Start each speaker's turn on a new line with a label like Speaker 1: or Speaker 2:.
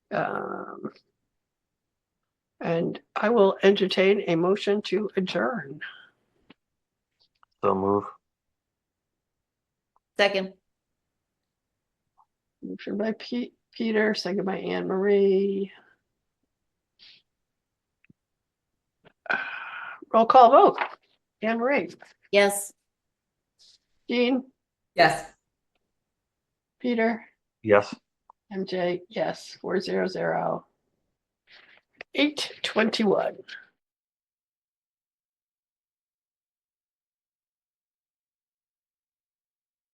Speaker 1: Um, And I will entertain a motion to adjourn.
Speaker 2: So move.
Speaker 3: Second,
Speaker 1: Motion by Pete, Peter, second by Anne Marie. Roll call vote. Anne Marie,
Speaker 3: yes.
Speaker 1: Jean,
Speaker 3: Yes.
Speaker 1: Peter,
Speaker 2: Yes.
Speaker 1: MJ, yes, four zero zero. Eight twenty-one.